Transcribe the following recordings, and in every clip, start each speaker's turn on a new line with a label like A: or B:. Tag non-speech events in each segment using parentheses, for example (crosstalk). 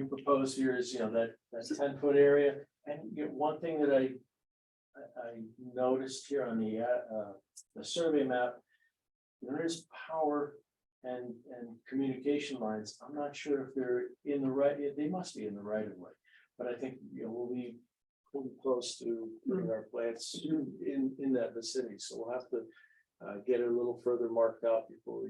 A: you propose here is, you know, that, that ten foot area, and you get one thing that I. I, I noticed here on the, uh, uh, the survey map. There is power and, and communication lines, I'm not sure if they're in the right, they must be in the right of way. But I think, you know, we'll be, we'll be close to putting our plants in, in that vicinity, so we'll have to. Uh, get it a little further marked out before we.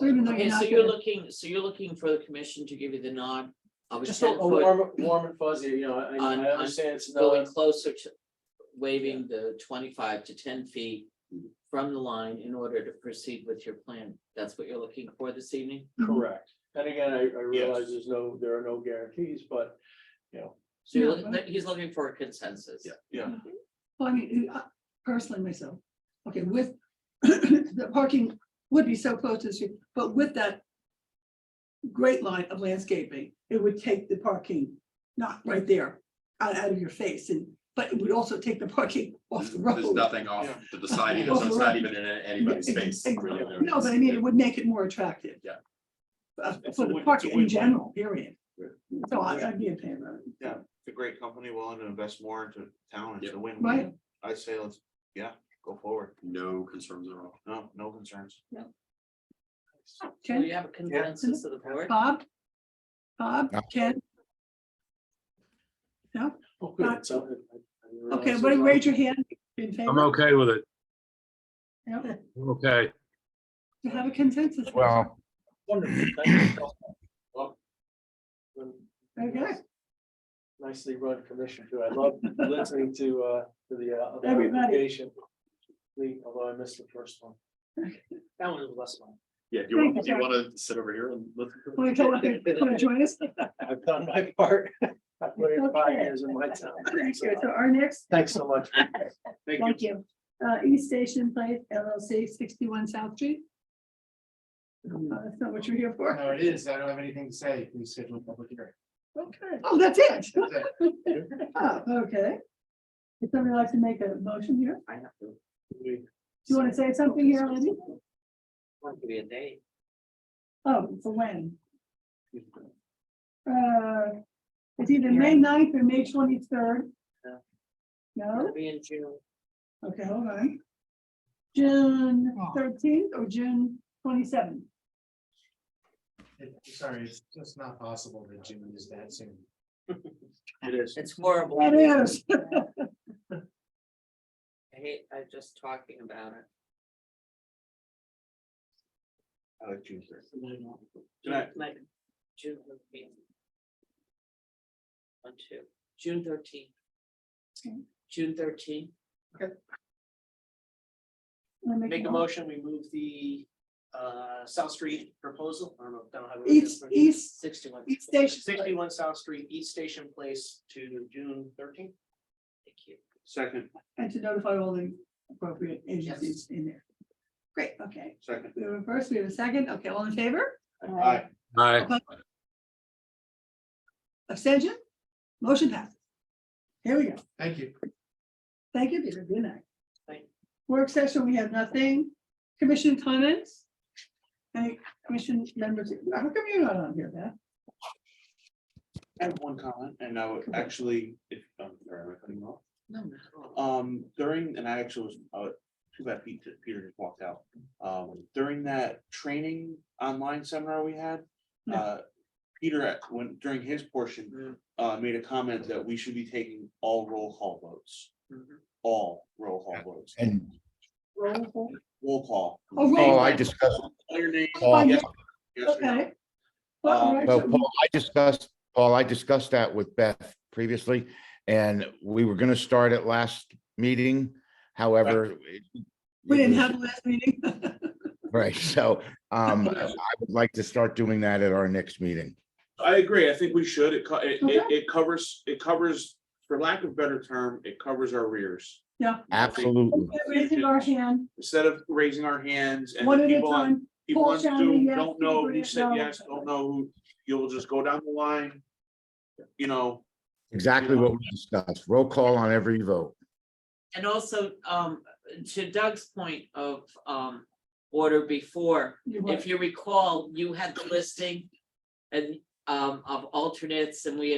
B: So even though you're
C: Okay,
B: not
C: so you're
B: gonna,
C: looking, so you're looking for the commission to give you the nod of a
A: Just a
C: ten
A: a
C: foot
A: warm, warm and fuzzy, you know, I,
C: On-
A: I
C: on
A: understand it's
C: going
A: no,
C: closer to waiving the twenty-five to ten feet from the line in order to proceed with your plan. That's what you're looking for this evening?
B: Mhm.
A: correct. And again, I, I realize there's no, there are no guarantees, but, you know.
C: So you're
B: Yeah,
C: looking,
B: but-
C: he's looking for a consensus.
A: yeah.
B: well, I mean, I- uh, personally myself, okay, with (coughs) the parking would be so close to the street, but with that great line of landscaping, it would take the parking, not right there, out, out of your face and, but it would also take the parking off the road.
D: There's nothing off to the side, either, so it's not even in
B: (laughs)
D: anybody's face. really, there
B: No, but I
D: is.
B: mean, it would make it more attractive.
D: Yeah.
B: Uh,
E: It's
B: For
E: a
B: the
E: win- it's
B: parking
E: a
B: in
E: win-win.
B: general, period.
D: Right.
B: So I- I'd be in favor. of it.
E: Yeah, it's a great company willing to invest more into town. It's a
B: Right.
E: win-win. I'd say let's, yeah, go forward.
D: No concerns at all.
E: No, no concerns.
C: Do
B: Ken,
C: Oh, you have a consensus of the board?
B: Bob? Bob, Ken,
A: Oh, good, so. I- I realize
B: okay,
A: there's
B: what,
A: a lot of-
B: raise your hand. in favor.
F: I'm okay with it.
B: Yeah,
F: I'm Okay.
B: To have a consensus.
G: Well,
A: Wonderful, thank you. Well, um,
B: Okay, (laughs)
A: Nicely run commission too. I love listening to, uh, to the, uh, other
B: Everybody.
A: application. Lee, Although I missed the first one. That one was the last one.
D: Yeah, do you want, do you want to sit over here and listen?
B: want to join us?
A: I've done my part. (laughs) I've put in five years of my time.
B: (laughs) Thank you. So our next,
A: Thanks so much.
B: thank you, uh, East Station Place LLC, sixty-one South Street. Uh, That's not what you're here for.
H: No, it is. I don't have anything to say. We schedule a public hearing.
B: Okay. Oh, that's it.
H: That's it.
B: (laughs) Oh, Okay. Would somebody like to make a motion here?
C: I have to,
B: Do you want to say something here, Libby?
C: want to be a day.
B: Oh, for when? Uh, it's either May 9th or May twenty-third.
C: No.
B: No? Oh.
C: It'll be in June.
B: Okay, hold on. June thirteenth or June twenty-seventh?
H: It- Sorry, it's just not possible that June is that soon.
E: It is.
C: It's horrible.
B: That is.
C: I hate, I'm just talking about it.
E: I like June third.
C: June-
E: Tonight.
C: Like, June thirteenth. One, two, June thirteenth.
B: Okay.
C: June thirteenth,
A: Make a motion, we move the uh South Street proposal, I don't know down how.
B: East, east,
A: Sixty-one.
B: east station.
A: Sixty-one South Street, East Station Place to June thirteenth.
C: thank you.
E: Second,
B: And to notify all the appropriate agencies in there. Great, okay.
E: second.
B: We have a first, we have a second. Okay, all in favor?
E: Aye.
F: Aye.
B: Abstention? Motion passes. Here we go.
H: Thank you.
B: Thank you, Peter. Good night.
A: Thank
B: Work session, we have nothing. Commission comments? Any commission members? How come you're not on here, Beth?
E: I have one comment and I would actually, if, um, sorry, am I cutting you off?
C: No, no.
E: Um, during, and I actually was, uh, too bad Pete, Peter just walked out. Um, during that training online seminar we had,
B: Yeah.
E: uh, Peter, at- when, during his portion, uh, made a comment that we should be taking all roll call votes. All roll call votes,
G: and,
B: Roll call.
E: roll call.
B: Oh, roll
G: oh,
B: call.
G: I discussed,
E: Call your name,
G: Paul,
E: yes, yes or no.
B: Okay. Well,
E: Um,
G: well,
B: actually,
G: Paul, I discussed, Paul, I discussed that with Beth previously. And we were gonna start at last meeting, however. it-
B: We didn't have the last
E: (laughs)
B: meeting.
G: Right, so,
B: (laughs)
G: um, I would like to start doing that at our next meeting.
E: I agree. I think we should. It, co- it, it,
B: Okay.
E: it covers, it covers, for lack of better term, it covers our rears.
B: Yeah.
E: I think
G: Absolutely.
B: Raising our hand,
E: Instead of raising our hands and
B: one
E: the
B: at a
E: people on,
B: time.
E: people
B: Paul
E: on
B: Shanley,
E: Zoom
B: yes,
E: don't know
B: Peter
E: who said
B: Grant, no.
E: yes, don't know who, you'll just go down the line. You know,
G: Exactly what we discussed. Roll call on every vote.
C: And also, um, to Doug's point of, um, order before,
B: You
C: if you recall, you had the listing. And um, of alternates and we